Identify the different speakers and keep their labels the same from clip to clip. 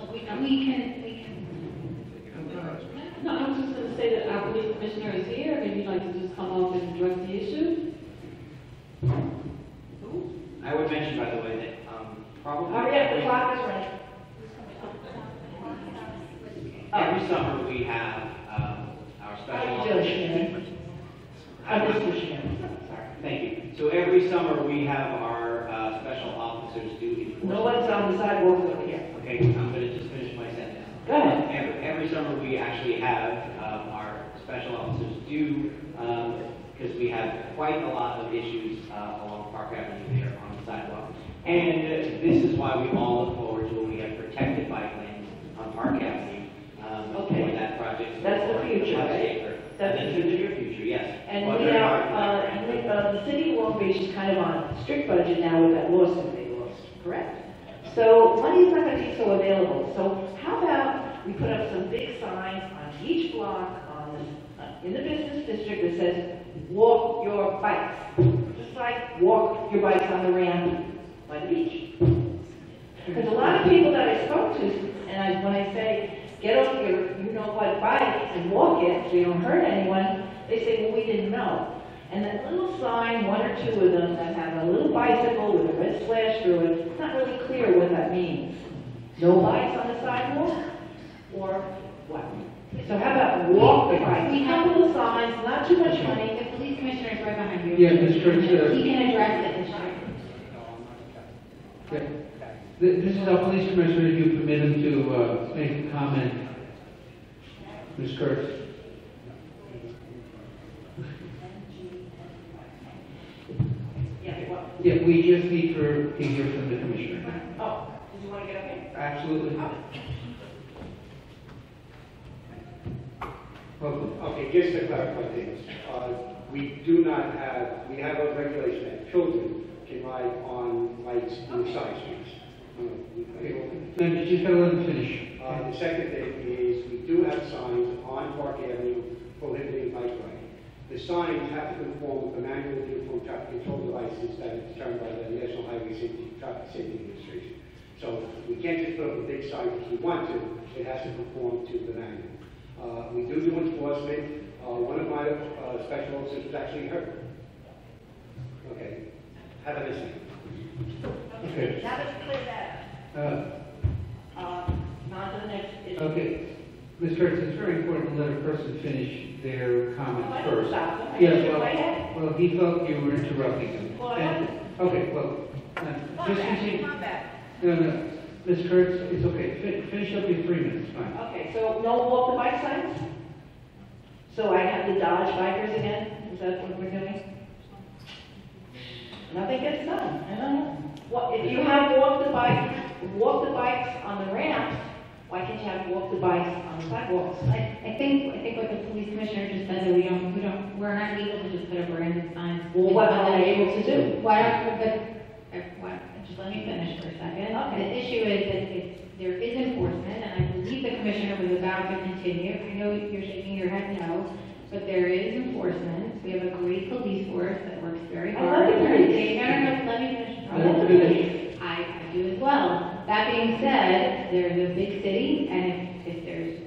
Speaker 1: we can, we can.
Speaker 2: No, I was just going to say that our police commissioner is here, and you'd like to just come up and address the issue?
Speaker 3: I would mention, by the way, that um, probably
Speaker 2: Hurry up, Oh, the clock is running.
Speaker 3: every summer we have um, our special.
Speaker 2: How you doing, Shannon?
Speaker 3: I was-
Speaker 2: Mr. Shannon.
Speaker 3: Sorry, thank you. So every summer we have our uh, special officers do enforcement.
Speaker 2: No one's on the sidewalk over here.
Speaker 3: Okay, I'm gonna just finish my sentence.
Speaker 2: Go ahead.
Speaker 3: Every, every summer, we actually have, um, our special officers do, um, because we have quite a lot of issues, uh, along Park Avenue there on the sidewalk. And uh, this is why we all look forward to when we have protected bike lanes on Park Avenue, um,
Speaker 2: Okay.
Speaker 3: when that project.
Speaker 2: That's the future,
Speaker 3: Five
Speaker 2: right?
Speaker 3: acre.
Speaker 2: That's the
Speaker 3: That's the near future, yes.
Speaker 2: And
Speaker 3: Well,
Speaker 2: we
Speaker 3: very
Speaker 2: are,
Speaker 3: hard
Speaker 2: uh,
Speaker 3: to
Speaker 2: and
Speaker 3: do.
Speaker 2: we- uh, the city of Long Beach is kind of on a strict budget now with that lawsuit they lost, correct? So money's not going to be so available. So how about we put up some big signs on each block on, the- uh, in the business district that says, walk your bikes. Just like, walk your bikes on the ramp by the beach. Because a lot of people that I spoke to, and I, when I say, get off your, you know what, bike and walk it so you don't hurt anyone, they say, well, we didn't know. And that little sign, one or two of them that have a little bicycle with a red slash through it, it's not really clear what that means. No bikes on the sidewalk, or what? So how about walk the bike? We have little signs, not too much money,
Speaker 1: The police commissioner is right behind you.
Speaker 4: Yeah, Mr. Chair.
Speaker 1: He can address it, Mr. Chair.
Speaker 4: Yeah. Th- This is our police commissioner, if you permit him to uh, make a comment. Ms. Kurtz?
Speaker 2: yeah, what?
Speaker 4: Yeah, we just need for, to hear from the commissioner.
Speaker 2: Oh, did you want to get up here?
Speaker 4: Absolutely. Welcome.
Speaker 5: Okay, just to clarify things, uh, we do not have, we have a regulation that children can ride on lights on side streets. Okay.
Speaker 4: No, you just gotta let him finish.
Speaker 5: Uh, The second thing is, we do have signs on Park Avenue prohibiting bike riding. The signs have to conform with the manual uniform traffic control devices that is determined by the National Highway Safety, Traffic Safety Administration. So we can't just put up a big sign if we want to, it has to conform to the manual. Uh, We do do enforcement, Uh, one of my uh, special officers was actually hurt. Okay, have a listen.
Speaker 4: Okay.
Speaker 2: Now that you cleared that up.
Speaker 4: Uh,
Speaker 2: Um, on to the next issue.
Speaker 4: Okay. Ms. Kurtz, it's very important to let a person finish their comment
Speaker 2: I
Speaker 4: first.
Speaker 2: didn't stop them. I
Speaker 4: Yes,
Speaker 2: just
Speaker 4: well,
Speaker 2: went ahead.
Speaker 4: well, he felt you were interrupting him.
Speaker 2: Well, I
Speaker 4: And- Okay, well, uh, just continue. No, no, Ms. Kurtz, it's okay, Fin- finish up your three minutes, fine.
Speaker 2: Okay, so no walk the bike signs? So I have the Dodge bikers again? Is that what we're doing? Nothing gets done, I don't know. What, if you have walk the bike, walk the bikes on the ramps, why can't you have walk the bikes on the sidewalks?
Speaker 1: I, I think, I think what the police commissioner just said, that we don't, we don't, we're not legal to just put up random signs.
Speaker 2: Well, what are they able to do?
Speaker 1: Why don't, but, uh, why, just let me finish for a second. The issue is that it's, there is enforcement, and I believe the commissioner was about to continue. I know you're shaking your head no, but there is enforcement. We have a great police force that works very
Speaker 2: I
Speaker 1: hard.
Speaker 2: love the police.
Speaker 1: They- No, no, no, let me finish.
Speaker 4: I love the police.
Speaker 1: I, I do as well. That being said, there's a big city, and if, if there's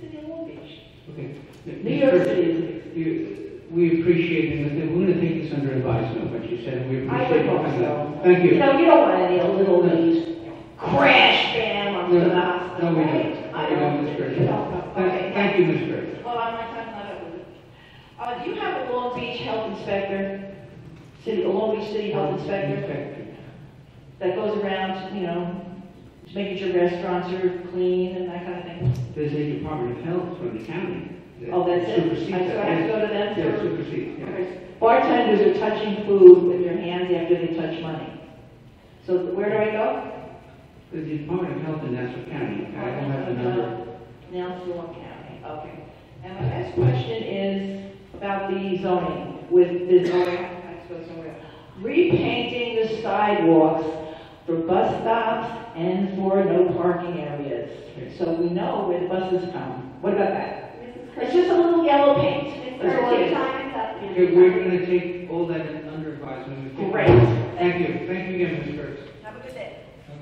Speaker 2: City of Long Beach.
Speaker 4: Okay.
Speaker 2: New
Speaker 4: Ms.
Speaker 2: York
Speaker 4: Kurtz,
Speaker 2: City is a big
Speaker 4: you- We appreciate, it, and we're gonna take this under advisement, what you said, and we
Speaker 2: I
Speaker 4: appreciate
Speaker 2: would
Speaker 4: it.
Speaker 2: hope so.
Speaker 4: Thank you.
Speaker 2: You know, you don't want any little leaves crash bam
Speaker 4: No,
Speaker 2: on the
Speaker 4: no,
Speaker 2: hospital,
Speaker 4: we
Speaker 2: right?
Speaker 4: don't.
Speaker 2: I
Speaker 4: We don't, Ms. Kurtz.
Speaker 2: You don't, no.
Speaker 4: Thank-
Speaker 2: Okay, Oh,
Speaker 4: Thank you, Ms. Kurtz.
Speaker 2: Hold on, my time's not over. Uh, do you have a Long Beach health inspector, city, a Long Beach city health inspector
Speaker 4: Thank you.
Speaker 2: that goes around, you know, making sure restaurants are clean and that kind of thing?
Speaker 4: There's a Department of Health from the county. that
Speaker 2: Oh, that's it?
Speaker 4: supersedes
Speaker 2: I so I have to
Speaker 4: that.
Speaker 2: go to them
Speaker 4: Yeah,
Speaker 2: for?
Speaker 4: supersedes, yeah.
Speaker 2: Okay. Bartenders are touching food with their hands after they touch money. So where do I go?
Speaker 4: The Department of Health in Nassau County, I don't have the number.
Speaker 2: Now Swan Uh, County, okay. And my next question is about the zoning with the zoning, I suppose, somewhere. Repainting the sidewalks for bus stops and for no parking areas. So we know where the buses come. What about that?
Speaker 6: Mrs.
Speaker 2: It's
Speaker 6: Curtis,
Speaker 2: just a little yellow paint.
Speaker 6: Mrs.
Speaker 2: That's all it
Speaker 6: Curtis, your
Speaker 2: is.
Speaker 6: time is up.
Speaker 4: Okay, we're gonna take all that in under advisement.
Speaker 2: Great.
Speaker 4: Thank you, thank you again, Ms. Kurtz.